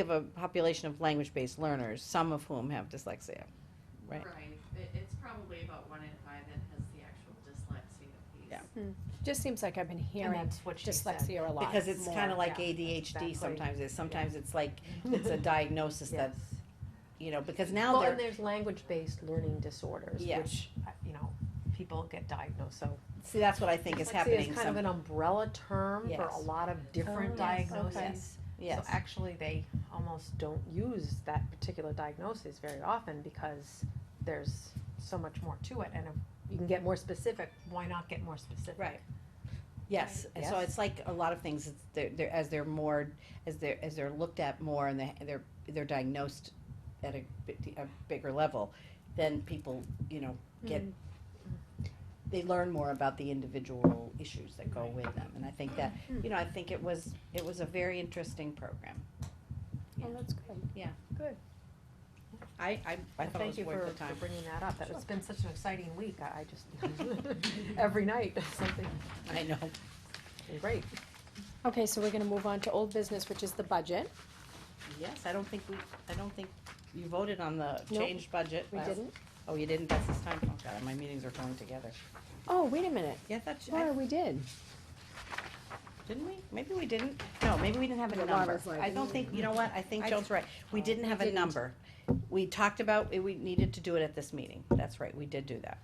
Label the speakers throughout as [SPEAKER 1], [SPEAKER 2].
[SPEAKER 1] We have a population of language-based learners, some of whom have dyslexia, right?
[SPEAKER 2] It, it's probably about one in five that has the actual dyslexia piece.
[SPEAKER 1] Yeah.
[SPEAKER 3] Just seems like I've been hearing
[SPEAKER 4] that's what she said.
[SPEAKER 3] dyslexia a lot.
[SPEAKER 1] Because it's
[SPEAKER 3] more.
[SPEAKER 1] kind of like
[SPEAKER 3] Yeah.
[SPEAKER 1] ADHD
[SPEAKER 4] exactly.
[SPEAKER 1] sometimes, it's, sometimes it's like, it's a diagnosis
[SPEAKER 4] Yes.
[SPEAKER 1] that, you know, because now
[SPEAKER 4] Well, and
[SPEAKER 1] they're,
[SPEAKER 4] there's language-based learning disorders,
[SPEAKER 1] Yeah.
[SPEAKER 4] which, uh, you know, people get diagnosed, so.
[SPEAKER 1] see, that's what I think is happening,
[SPEAKER 4] It's kind
[SPEAKER 1] some,
[SPEAKER 4] of an umbrella term for a
[SPEAKER 1] Yes.
[SPEAKER 4] lot of different
[SPEAKER 3] Oh, yes,
[SPEAKER 4] diagnoses.
[SPEAKER 3] okay.
[SPEAKER 1] yes.
[SPEAKER 4] So actually, they almost don't use that particular diagnosis very often because there's so much more to it, and if you can get more specific, why not get more specific?
[SPEAKER 1] Right. Yes, and so
[SPEAKER 4] Yes.
[SPEAKER 1] it's like a lot of things, it's, they're, they're, as they're more, as they're, as they're looked at more and they- they're, they're diagnosed at a, bit- a bigger level, then people, you know,
[SPEAKER 3] Mm.
[SPEAKER 1] get,
[SPEAKER 3] Oh,
[SPEAKER 1] they learn more about the individual issues that go with them, and I think that, you know, I think it was, it was a very interesting program.
[SPEAKER 3] Oh, that's good.
[SPEAKER 1] I, I, I
[SPEAKER 4] Well,
[SPEAKER 1] thought it was
[SPEAKER 4] Thank you
[SPEAKER 1] worth
[SPEAKER 4] for,
[SPEAKER 1] the time.
[SPEAKER 4] for bringing that up, that it's been such an exciting week, I I just, every night, something,
[SPEAKER 1] I know.
[SPEAKER 4] great.
[SPEAKER 3] Okay, so we're gonna move on to old business, which is the budget.
[SPEAKER 1] Yes, I don't think we, I don't think you voted on the
[SPEAKER 3] Nope,
[SPEAKER 1] changed budget.
[SPEAKER 3] We
[SPEAKER 1] last-
[SPEAKER 3] didn't.
[SPEAKER 1] Oh, you didn't? That's this time? Oh, God, my meetings are going together.
[SPEAKER 3] Oh, wait a minute.
[SPEAKER 1] Yeah, I thought you- I
[SPEAKER 3] Laura, we did.
[SPEAKER 1] Didn't we? Maybe we didn't. No, maybe we didn't have
[SPEAKER 3] Yeah,
[SPEAKER 1] a number.
[SPEAKER 3] Laura's like,
[SPEAKER 1] I don't think, you know what, I think
[SPEAKER 3] I-
[SPEAKER 1] Joan's right. We didn't have a
[SPEAKER 3] didn't.
[SPEAKER 1] number. We talked about, it- we needed to do it at this meeting. That's right, we did do that.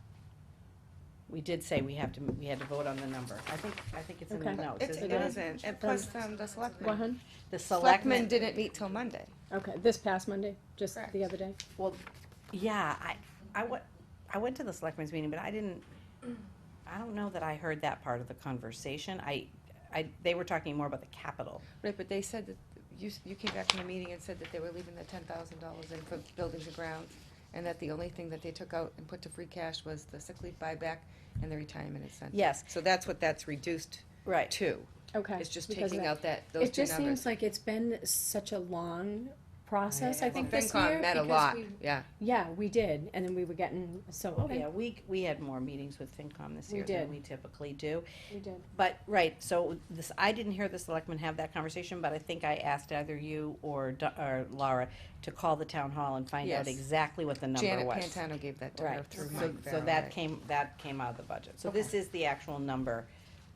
[SPEAKER 1] We did say we have to, we had to vote on the number. I think, I think it's in the
[SPEAKER 3] Okay.
[SPEAKER 1] notes,
[SPEAKER 5] It's,
[SPEAKER 1] isn't
[SPEAKER 5] it
[SPEAKER 1] it?
[SPEAKER 5] isn't, and plus, um, the selectmen,
[SPEAKER 3] One,
[SPEAKER 1] The
[SPEAKER 5] selectmen
[SPEAKER 1] selectmen,
[SPEAKER 5] didn't meet till Monday.
[SPEAKER 3] okay, this past Monday, just
[SPEAKER 5] Correct.
[SPEAKER 3] the other day.
[SPEAKER 1] well, yeah, I, I went, I went to the selectmen's meeting, but I didn't, I don't know that I heard that part of the conversation. I, I, they were talking more about the capital.
[SPEAKER 5] Right, but they said that, you, s- you came back from the meeting and said that they were leaving the ten thousand dollars in for buildings and grounds, and that the only thing that they took out and put to free cash was the sick leave buyback and the retirement incentive.
[SPEAKER 1] Yes.
[SPEAKER 5] So that's what that's reduced
[SPEAKER 1] Right.
[SPEAKER 5] to,
[SPEAKER 3] Okay.
[SPEAKER 5] it's just
[SPEAKER 3] because of
[SPEAKER 5] taking
[SPEAKER 3] that.
[SPEAKER 5] out that, those
[SPEAKER 3] It
[SPEAKER 5] two
[SPEAKER 3] just seems
[SPEAKER 5] numbers.
[SPEAKER 3] like it's been such a long process, I
[SPEAKER 5] Well,
[SPEAKER 3] think, this
[SPEAKER 5] FinCom
[SPEAKER 3] year.
[SPEAKER 5] met a
[SPEAKER 3] because
[SPEAKER 5] lot,
[SPEAKER 3] we-
[SPEAKER 5] yeah.
[SPEAKER 3] Yeah, we did, and then we were getting, so,
[SPEAKER 1] Oh,
[SPEAKER 3] okay,
[SPEAKER 1] yeah, we, we had more meetings with FinCom this
[SPEAKER 3] We
[SPEAKER 1] year than
[SPEAKER 3] did.
[SPEAKER 1] we typically do.
[SPEAKER 3] we did.
[SPEAKER 1] But, right, so this, I didn't hear the selectmen have that conversation, but I think I asked either you or, Do- or Laura to call the town hall and find out
[SPEAKER 5] Yes.
[SPEAKER 1] exactly what the number
[SPEAKER 5] Janet
[SPEAKER 1] was.
[SPEAKER 5] Pantano gave that to her
[SPEAKER 1] Right,
[SPEAKER 5] through
[SPEAKER 1] so,
[SPEAKER 5] Mike
[SPEAKER 1] so
[SPEAKER 5] Farrell,
[SPEAKER 1] that
[SPEAKER 5] right.
[SPEAKER 1] came, that came out of the budget. So this is the actual number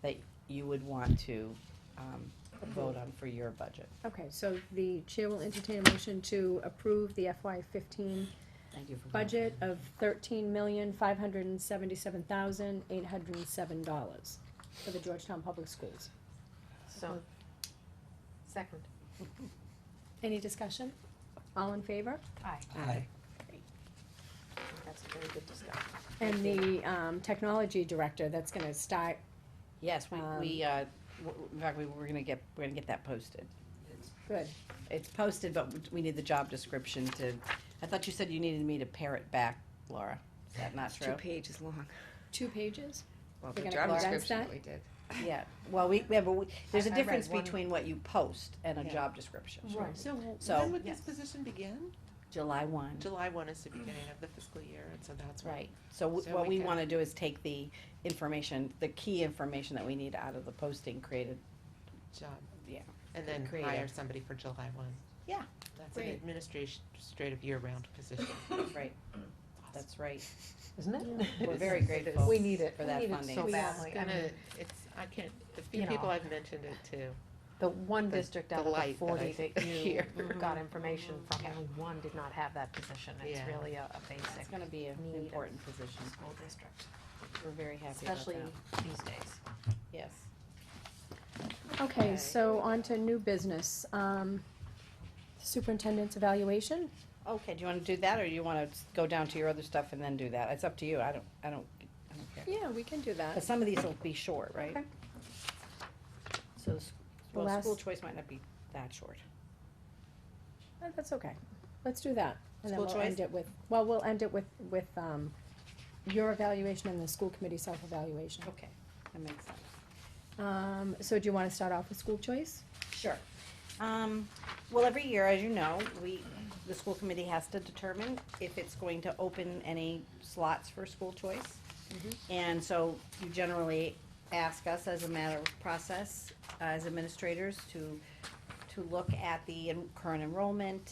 [SPEAKER 1] that you would want to, um, vote on for your budget.
[SPEAKER 3] Okay, so the chair will entertain a motion to approve the FY fifteen
[SPEAKER 1] Thank you for.
[SPEAKER 3] budget of thirteen million, five hundred and seventy-seven thousand, eight hundred and seven dollars for the Georgetown Public Schools.
[SPEAKER 4] So, second,
[SPEAKER 3] Any discussion? All in favor?
[SPEAKER 4] aye,
[SPEAKER 1] Aye.
[SPEAKER 4] I think that's a very good discussion.
[SPEAKER 3] And the, um, technology director, that's gonna start,
[SPEAKER 1] Yes, we,
[SPEAKER 3] Um,
[SPEAKER 1] we, uh, w- in fact, we, we're gonna get, we're gonna get that posted.
[SPEAKER 3] good,
[SPEAKER 1] It's posted, but we need the job description to, I thought you said you needed me to pare it back, Laura. Is that not
[SPEAKER 5] It's two
[SPEAKER 1] true?
[SPEAKER 5] pages long,
[SPEAKER 3] two pages?
[SPEAKER 5] well,
[SPEAKER 3] We're
[SPEAKER 5] the
[SPEAKER 3] gonna
[SPEAKER 5] job
[SPEAKER 3] condense
[SPEAKER 5] description
[SPEAKER 3] that?
[SPEAKER 5] that we did.
[SPEAKER 1] Yeah, well, we, yeah, but we, there's a
[SPEAKER 4] I- I read
[SPEAKER 1] difference
[SPEAKER 4] one-
[SPEAKER 1] between what you post and a
[SPEAKER 6] Yeah.
[SPEAKER 1] job description.
[SPEAKER 4] Right.
[SPEAKER 6] So
[SPEAKER 1] So-
[SPEAKER 6] when would this position begin?
[SPEAKER 1] July one.
[SPEAKER 6] July one is the beginning of the fiscal year, and so that's when-
[SPEAKER 1] Right, so w-
[SPEAKER 6] So
[SPEAKER 1] what we
[SPEAKER 6] we can-
[SPEAKER 1] wanna do is take the information, the key information that we need out of the posting created,
[SPEAKER 6] job,
[SPEAKER 1] yeah.
[SPEAKER 6] and then
[SPEAKER 1] Creative.
[SPEAKER 6] hire somebody for July one.
[SPEAKER 1] Yeah.
[SPEAKER 6] That's an
[SPEAKER 1] Great.
[SPEAKER 6] administrative year-round position.
[SPEAKER 1] Right, that's right.
[SPEAKER 4] Isn't it?
[SPEAKER 1] We're very grateful.
[SPEAKER 4] We need it,
[SPEAKER 1] for
[SPEAKER 4] we
[SPEAKER 1] that
[SPEAKER 4] need it
[SPEAKER 1] funding.
[SPEAKER 4] so
[SPEAKER 6] It's
[SPEAKER 4] badly. I mean,
[SPEAKER 6] gonna- It's, I can't, the few
[SPEAKER 4] You know.
[SPEAKER 6] people I've mentioned it to,
[SPEAKER 4] the one
[SPEAKER 6] the-
[SPEAKER 4] district
[SPEAKER 6] the
[SPEAKER 4] out of the
[SPEAKER 6] light that
[SPEAKER 4] forty
[SPEAKER 6] I
[SPEAKER 4] that you
[SPEAKER 6] hear. Mm-hmm.
[SPEAKER 4] got information from, only one did not have that position. It's
[SPEAKER 6] Yeah.
[SPEAKER 4] really a a basic
[SPEAKER 1] It's gonna be an
[SPEAKER 4] Need.
[SPEAKER 1] important position,
[SPEAKER 4] school district,
[SPEAKER 1] we're very happy about
[SPEAKER 4] especially
[SPEAKER 1] that,
[SPEAKER 4] these days.
[SPEAKER 1] yes.
[SPEAKER 3] Okay,
[SPEAKER 6] Okay.
[SPEAKER 3] so on to new business, um, superintendent's evaluation,
[SPEAKER 1] Okay, do you wanna do that, or you wanna s- go down to your other stuff and then do that? It's up to you, I don't, I don't, I don't care.
[SPEAKER 3] yeah, we can do
[SPEAKER 1] But
[SPEAKER 3] that.
[SPEAKER 1] some of these will be short, right?
[SPEAKER 3] Okay.
[SPEAKER 1] So, s-
[SPEAKER 3] The
[SPEAKER 1] well, school
[SPEAKER 3] last-
[SPEAKER 1] choice might not be that short.
[SPEAKER 3] Uh, That's okay, let's do that, and then
[SPEAKER 1] School
[SPEAKER 3] we'll end
[SPEAKER 1] choice?
[SPEAKER 3] it with, well, we'll end it with, with, um, your evaluation and the school committee self-evaluation.
[SPEAKER 1] Okay, that makes sense.
[SPEAKER 3] Um, so do you wanna start off with school choice?
[SPEAKER 1] Sure. Um, well, every year, as you know, we, the school committee has to determine if it's going to open any slots for school choice. And so you generally ask us as a matter of process, as administrators, to, to look at the en- current enrollment